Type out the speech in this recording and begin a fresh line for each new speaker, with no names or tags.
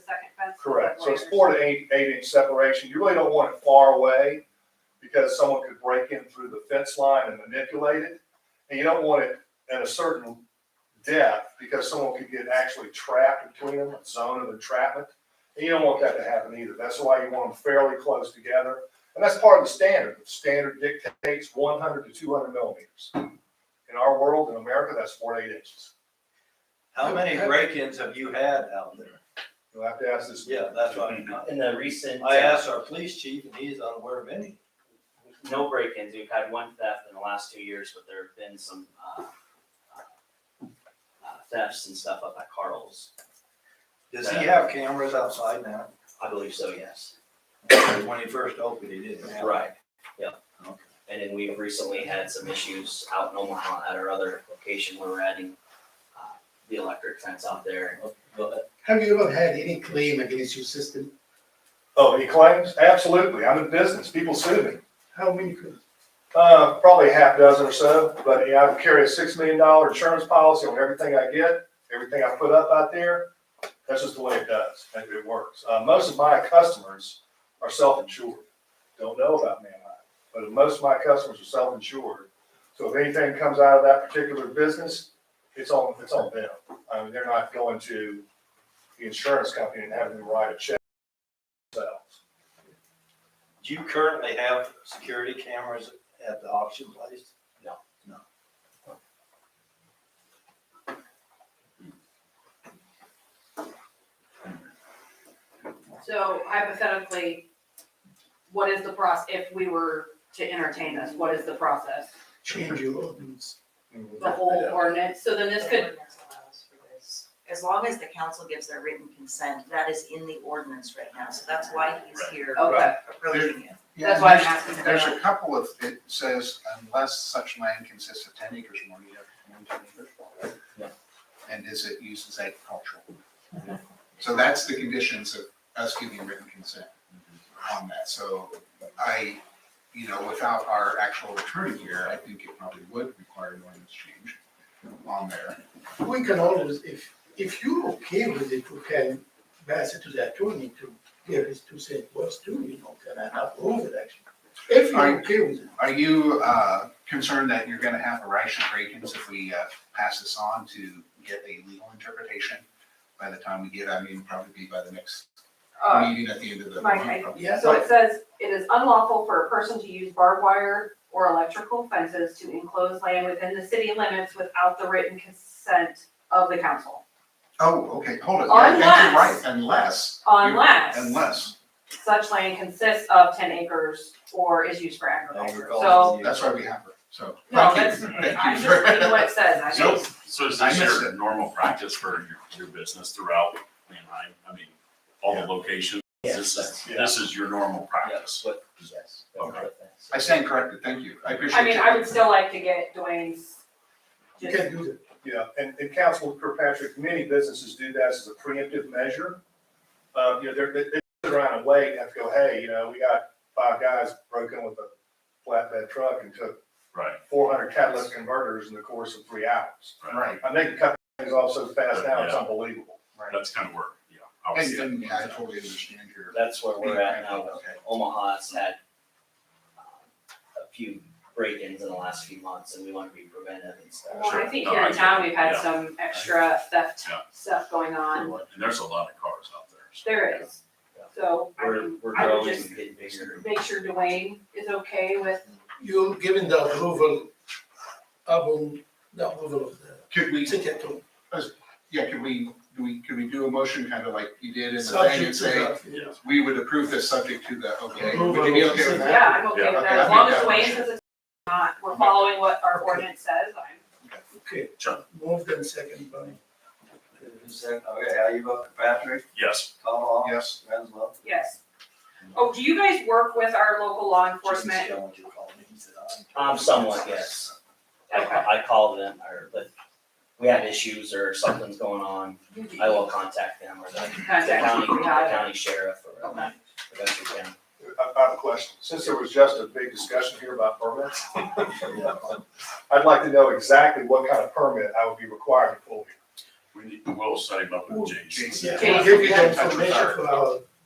Correct, so it's four to eight, eight inch separation, you really don't want it far away, because someone could break in through the fence line and manipulate it. And you don't want it at a certain depth, because someone could get actually trapped between them, a zone of entrapment. And you don't want that to happen either, that's why you want them fairly close together, and that's part of the standard, the standard dictates one hundred to two hundred millimeters. In our world, in America, that's four to eight inches,
How many break-ins have you had out there? Mm-hmm.
you'll have to ask this.
Yeah, that's what I'm,
In the recent. uh,
I asked our police chief and he's unaware of any.
No break-ins, we've had one theft in the last two years, but there have been some, uh, uh, thefts and stuff up at Carl's.
Does he have cameras outside now?
I believe so, yes.
When he first opened, he didn't have.
Right, yeah. And then we've recently had some issues out in Omaha at our other location where we're adding, uh, the electric fence out there. But
Have you ever had any claim against your system?
Oh, he claims, absolutely, I'm in business, people sue me.
How many claims?
Uh, probably a half dozen or so, but yeah, I carry a six million dollar insurance policy on everything I get, everything I put up out there. That's just the way it does, and it works. Uh, most of my customers are self-insured. Don't know about Manheim, but most of my customers are self-insured. So if anything comes out of that particular business, it's on, it's on them. I mean, they're not going to the insurance company and having to write a check themselves.
Do you currently have security cameras at the auction place?
So hypothetically, what is the process, if we were to entertain this, what is the process?
Change your ordinance.
mm-hmm.
The whole ordinance, so then this
The
could,
ordinance allows for this. As long as the council gives their written consent, that is in the ordinance right now, so that's why he's here
okay,
approaching it.
that's why I'm asking
There's
about.
a couple of, it says unless such land consists of ten acres or more, you have to own ten acres.
Yeah.
And is it used as agricultural? So that's the conditions of us giving written consent on that. So I, you know, without our actual attorney here, I think it probably would require an ordinance change on there.
We can always, if, if you're okay with it, we can pass it to the attorney to give his two cents worth too, you know, can I approve it actually? If you're okay with it.
Are you uh, concerned that you're gonna have a rash of break-ins if we uh, pass this on to get a legal interpretation? By the time we get, I mean, probably be by the next
Uh,
meeting at the end of the.
Mike,
month,
I-
probably.
Yeah.
So it says, it is unlawful for a person to use barbed wire or electrical fences to enclose land within the city limits without the written consent of the council.
Oh, okay, hold it. Yeah, I think you're
Unless-
Right, unless,
Unless
unless,
such land consists of ten acres or is used for agriculture. So,
that's why we have her, so.
no,
thank
that's,
you,
I'm
Thank
just
you for-
reading what it says, I
So,
think.
So is
I
this
missed
your
it.
normal practice for your, your business throughout Manheim? I mean, all the locations? This is,
Yeah.
this is your normal practice?
Yes, but, yes.
Okay.
I stand corrected, thank you, I appreciate
I mean,
you.
I would still like to get Dwayne's.
You
just-
can do that.
Yeah, and, and Councilman Kirkpatrick, many businesses do that as a preemptive measure. Uh, you know, they're, they, they sit around and wait and have to go, hey, you know, we got five guys broke in with a flatbed truck and took
Right,
four hundred catalytic converters in the course of three hours.
right.
Right,
I think cut things off so fast now, it's
Yeah.
unbelievable.
That's kind of where, yeah. I would
and,
see it.
and yeah, I totally understand your.
That's where we're at now.
Okay.
Omaha's had um, a few break-ins in the last few months and we want to be preventive and
Well,
stuff.
I
Sure.
think
No,
here
I
in
get
town,
it.
we've had
Yeah.
some extra theft
Yeah.
stuff going on.
And there's a lot of cars out there. so-
There is.
Yeah.
So I
We're,
mean,
we're
I would
growing
just
and getting bigger.
make sure Dwayne is okay with,
You're giving the approval, upon the approval of the
Could we,
city attorney.
yeah, could we, do we, could we do a motion kind of like you did in the thing
Subject
and
to
say,
that, yeah.
We would approve this subject to the, okay,
Approval.
would you be okay with that?
yeah, I'm okay
Yeah.
with
Okay,
that. As
I
long
think
as
that
Dwayne
works.
says it's not, we're following what our
Okay.
ordinance says, I'm.
Okay.
Sure.
Moved and second by
Okay, how you vote, Patrick,
Yes,
Caldwell?
Yes.
Renzo?
Yes. Oh, do you guys work with our local law
Just
enforcement?
yell what you call me, he said, "I."
Um, somewhat, yes. I,
Okay.
I call them or, but we have issues or something's going on, I will contact them or the the county,
Contact,
the
got it.
county sheriff or um, Montgomery County.
I, I have a question. Since there was just a big discussion here about permits, I'd like to know exactly what kind of permit I would be required to pull here.
We need, we'll set him up with Jason.
Jason.
We'll give you the information for our